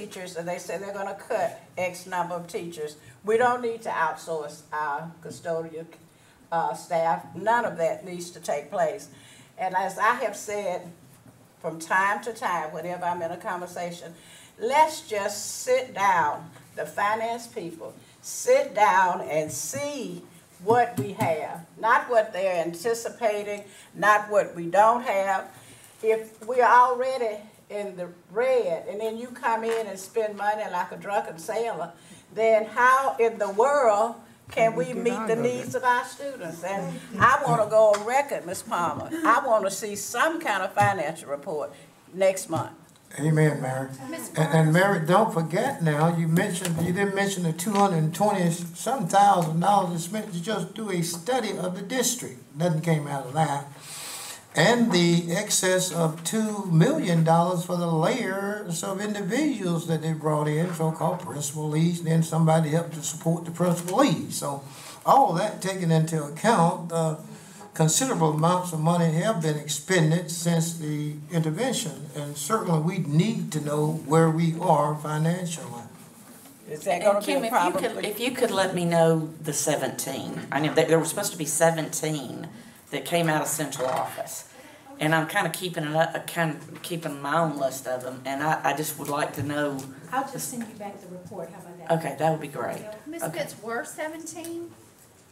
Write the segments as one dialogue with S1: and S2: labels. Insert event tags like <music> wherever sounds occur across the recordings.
S1: teachers, and they say they're gonna cut X number of teachers. We don't need to outsource our custodial, uh, staff, none of that needs to take place. And as I have said from time to time, whenever I'm in a conversation, let's just sit down, the finance people, sit down and see what we have, not what they're anticipating, not what we don't have. If we're already in the red and then you come in and spend money like a drunken sailor, then how in the world can we meet the needs of our students? And I want to go on record, Ms. Palmer, I want to see some kind of financial report next month.
S2: Amen, Mary. And, and Mary, don't forget now, you mentioned, you didn't mention the two hundred and twenty some thousand dollars that's spent to just do a study of the district. Nothing came out of that. And the excess of two million dollars for the layers of individuals that they brought in, so-called principal leads, then somebody helped to support the principal leads. So all that taken into account, uh, considerable amounts of money have been expended since the intervention. And certainly, we need to know where we are financially.
S1: Is that
S3: And
S1: going to be
S3: Kim,
S1: a
S3: if you
S1: problem?
S3: could, if you could let me know the seventeen, I know that there were supposed to be seventeen that came out of central office. And I'm kind of keeping it up, kind of keeping my own list of them, and I, I just would like to know,
S4: I'll just send you back the report, how about that?
S3: okay, that would be great.
S5: Miss
S3: Okay.
S5: Pitts were seventeen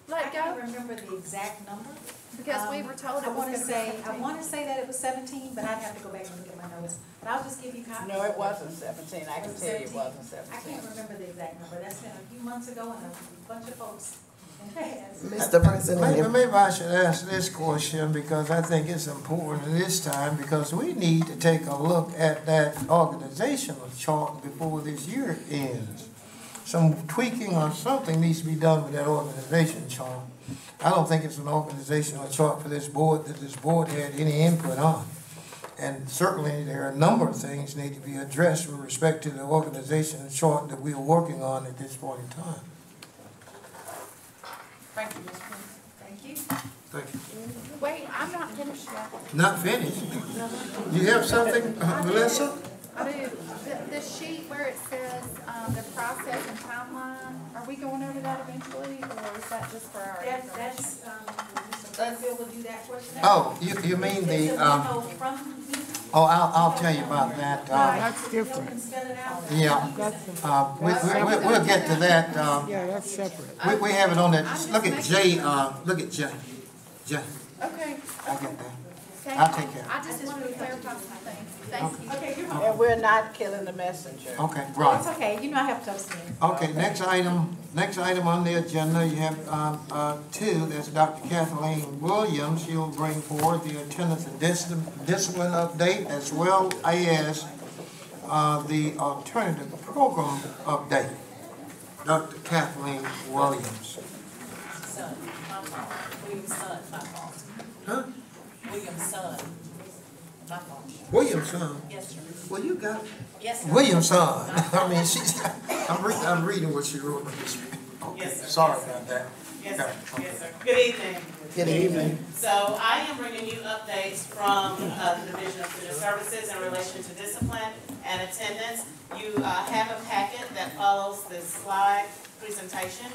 S4: I
S5: let
S4: can't
S5: go?
S4: remember the exact number.
S5: Because we
S4: Um,
S5: were told
S4: I
S5: it was
S4: wanna
S5: gonna be
S4: say, I
S5: seventeen.
S4: wanna say that it was seventeen, but I'd have to go back and look at my notes, but I'll just give you copies.
S1: No, it wasn't seventeen, I can
S4: Was it
S1: tell you it
S4: 17?
S1: wasn't
S4: I
S1: seventeen.
S4: can't remember the exact number, that's been a few months ago, and a bunch of folks. <laughs>
S6: Mr. President,
S2: Maybe,
S6: if-
S2: maybe I should ask this question because I think it's important at this time because we need to take a look at that organizational chart before this year ends. Some tweaking or something needs to be done with that organization chart. I don't think it's an organizational chart for this board that this board had any input on. And certainly, there are a number of things need to be addressed with respect to the organizational chart that we are working on at this point in time.
S4: Thank you, Ms. Thank you.
S2: Thank you.
S5: Wait, I'm not finished yet.
S2: Not finished. You have something, uh, Melissa?
S5: I do, the, the sheet where it says, um, the process and timeline, are we going over that eventually, or is that just for our?
S4: That, that's, um, Mr. Glanville will do that question.
S2: Oh, you, you mean
S4: It's
S2: the,
S4: a
S2: um,
S4: memo from me.
S2: oh, I'll, I'll tell you about that. Uh,
S4: That's different. can spell it out.
S2: yeah, uh, we, we, we- we'll get to that. Um,
S6: yeah, that's separate.
S2: we, we have it on that, look at Jay, uh, look at Jay. Jay,
S5: Okay.
S2: I get that.
S5: thank
S2: I'll
S5: you.
S2: take care of it.
S5: I just wanted to clarify some things, thank you.
S4: Okay, you're home.
S1: And we're not killing the messenger.
S2: Okay,
S4: It's
S2: right.
S4: okay, you know I have to abstain.
S2: Okay, next item, next item on the agenda, you have, um, uh, two, that's Dr. Kathleen Williams. She'll bring forward the attendance and discipline, discipline update as well as, uh, the alternative program update. Dr. Kathleen Williams.
S7: Son, my fault. William's son, my fault.
S2: Huh?
S7: William's son, my fault.
S2: Williamson?
S7: Yes, sir.
S2: Well, you got
S7: Yes, sir.
S2: Williamson. <laughs> I mean, she's, I'm reading, I'm reading what she wrote. Okay,
S7: Yes, sir.
S2: sorry about that.
S7: Yes, sir. Yes, sir. Good evening.
S2: Good evening.
S7: So I am bringing you updates from uh, the Division of Student Services in relation to discipline and attendance. You uh, have a packet that follows this slide presentation.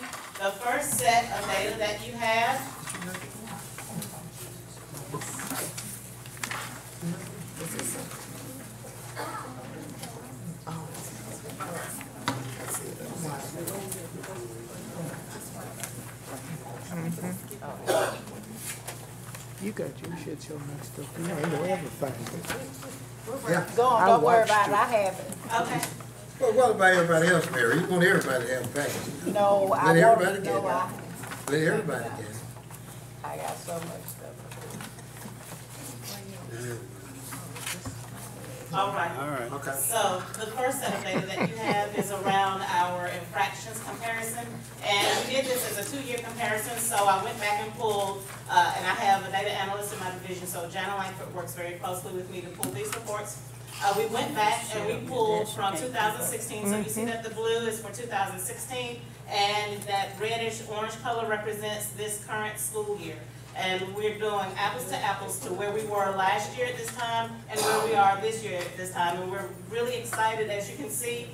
S7: The first set of data that you have
S6: You got your shit so messed up, you ain't know everything.
S1: Go on,
S6: I
S1: don't worry
S6: watched
S1: about it,
S6: you.
S1: I have it.
S7: Okay,
S2: Well, what about everybody else, Mary? You want everybody to have a package?
S1: No, I
S2: Let
S1: want,
S2: everybody get
S1: no,
S2: it.
S1: I,
S2: Let everybody get it.
S1: I got so much stuff.
S7: all right.
S2: Okay.
S7: So the first set of data that you have is around our infractions comparison. And we did this as a two-year comparison, so I went back and pulled, uh, and I have a data analyst in my division, so Jana Langford works very closely with me to pull these reports. Uh, we went back and we pulled from two thousand sixteen, so you see that the blue is for two thousand sixteen, and that reddish orange color represents this current school year. And we're doing apples to apples to where we were last year at this time and where we are this year at this time. And we're really excited, as you can see,